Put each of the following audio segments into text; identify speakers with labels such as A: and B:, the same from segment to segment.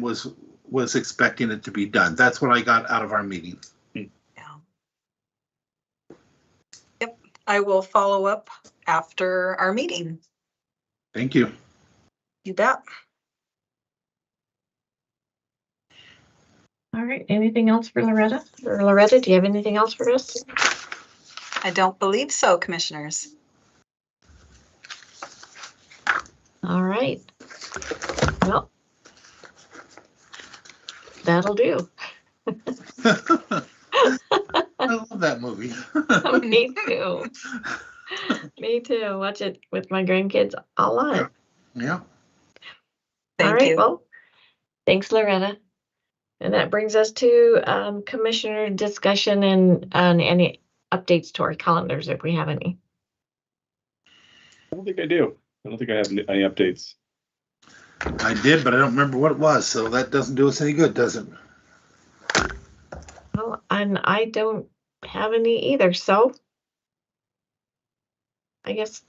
A: was was expecting it to be done. That's what I got out of our meeting.
B: Yeah. Yep, I will follow up after our meeting.
A: Thank you.
B: You bet.
C: All right, anything else for Loretta? Or Loretta, do you have anything else for us?
B: I don't believe so, commissioners.
C: All right. Well. That'll do.
A: I love that movie.
C: Me too. Me too. Watch it with my grandkids a lot.
A: yeah.
C: All
B: Thank
C: right,
B: you.
C: well, thanks Loretta. And that brings us to um, commissioner discussion and, uh, and any updates to our calendars if we have any.
D: I don't think I do. I don't think I have any any updates.
A: I did, but I don't remember what it was, so that doesn't do us any good, does it?
C: Well, and I don't have any either, so. I guess.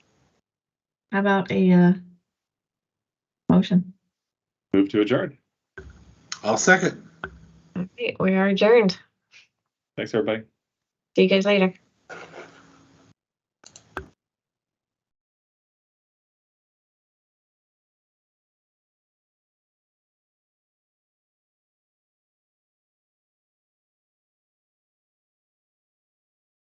C: How about a, uh, motion?
D: Move to adjourn.
A: I'll second.
C: All right, we are adjourned.
D: Thanks, everybody.
C: See you guys later.